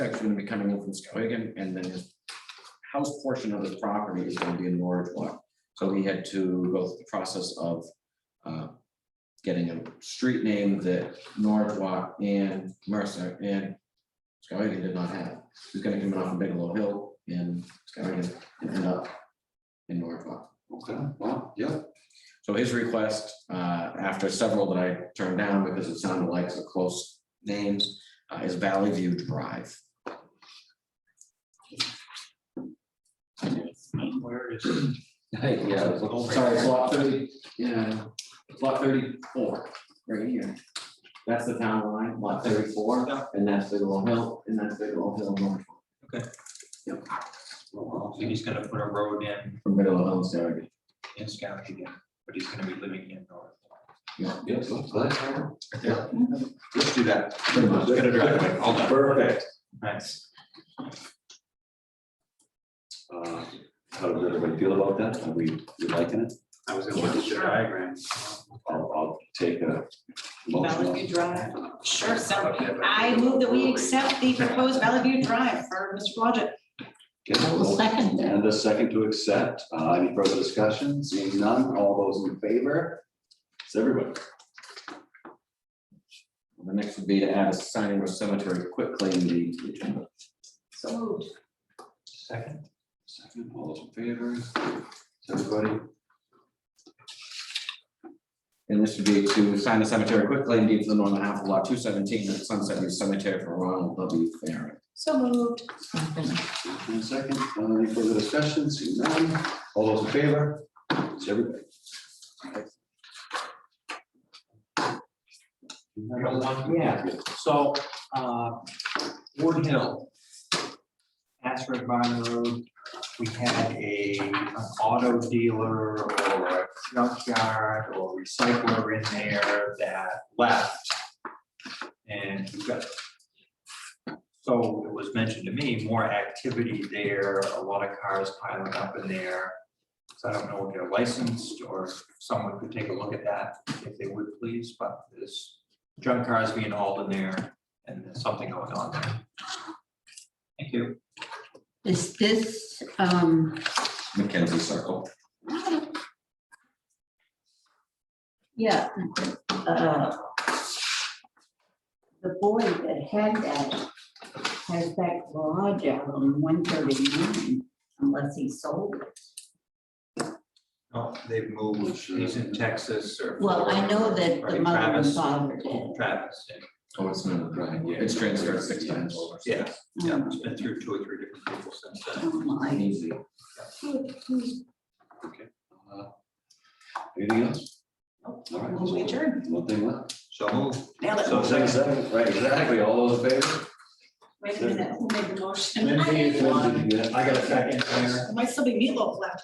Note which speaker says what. Speaker 1: section gonna be coming in from Skowhegan, and then his house portion of his property is gonna be in Norwich Walk. So he had to go through the process of uh, getting a street name that Norwich Walk and Mercer and Skowhegan did not have. He's gonna come in off of Bigelow Hill in Skowhegan and end up in Norwich Walk.
Speaker 2: Okay, wow, yeah,
Speaker 1: So his request, uh, after several that I turned down because it sounded like the close names, uh, is Valley View Drive.
Speaker 3: And Where is it?
Speaker 2: yeah, it was all-
Speaker 1: Sorry, it's lot thirty, yeah, it's lot thirty-four, right here. That's the town line, lot thirty-four, and that's Bigelow Hill, and that's Bigelow Hill North.
Speaker 3: So he's gonna put a road in,
Speaker 1: From Bigelow Hill, Sarah.
Speaker 3: in Skowhegan, but he's gonna be living in North.
Speaker 2: yeah, so that's how- yeah. Let's do that.
Speaker 1: Pretty much.
Speaker 3: Get a driveway, all done.
Speaker 2: Perfect.
Speaker 3: Nice.
Speaker 2: Uh, How does everybody feel about that? Are we, we liking it?
Speaker 3: I was gonna look at the diagram.
Speaker 2: I'll, I'll take a motion.
Speaker 4: Valley
Speaker 2: on-
Speaker 4: View Drive. Sure, so I move that we accept the proposed Valley View Drive for Mr. Blodgett.
Speaker 2: Get a
Speaker 5: I will
Speaker 2: motion
Speaker 5: second that.
Speaker 2: And a second to accept. Uh, Any further discussion? Seeing none, all those in favor? It's everybody.
Speaker 1: The next would be to add a signing of cemetery quickly in the agenda.
Speaker 4: So moved.
Speaker 3: Second,
Speaker 2: Second, all those in favor? It's everybody.
Speaker 1: And this would be to sign the cemetery quickly and deed for the northern half of lot two seventeen at Sunset View Cemetery for Ronald W. Farren.
Speaker 4: So moved.
Speaker 2: Motion and second, Uh, any further discussion? Seeing none, all those in favor? It's everybody.
Speaker 3: I got one. So, uh, Ward Hill. Ashford Barn Road, we had a, an auto dealer or a junkyard or recycler in there that left. And we got. So it was mentioned to me, more activity there, a lot of cars piling up in there. So I don't know if they're licensed or if someone could take a look at that if they would please, but this junk cars being hauled in there and there's something going on there. Thank you.
Speaker 5: Is this, um,
Speaker 1: Mackenzie Circle.
Speaker 5: yeah. uh, The boy that had that has that garage out on one thirty-nine unless he sold it.
Speaker 3: No, Oh, they've moved, he's in Texas or.
Speaker 5: Well, I know that the
Speaker 3: Right,
Speaker 5: mother and
Speaker 3: Travis,
Speaker 5: father did.
Speaker 3: Travis,
Speaker 1: Oh, it's not right, yeah, it's transferred six times over.
Speaker 3: yeah, yeah, it's been through two or three different people since then.
Speaker 5: Oh, my.
Speaker 1: Easy.
Speaker 2: Uh, Anything else? All right.
Speaker 4: Move adjourned.
Speaker 2: One thing left.
Speaker 3: So move.
Speaker 4: Nailed it.
Speaker 3: So second.
Speaker 2: Right, exactly, all those in favor?
Speaker 4: Wait a minute, who made the motion?
Speaker 6: Lindsay is
Speaker 4: I
Speaker 6: one.
Speaker 2: Yeah.
Speaker 6: I got a second, Claire.
Speaker 4: Might still be meatloaf left.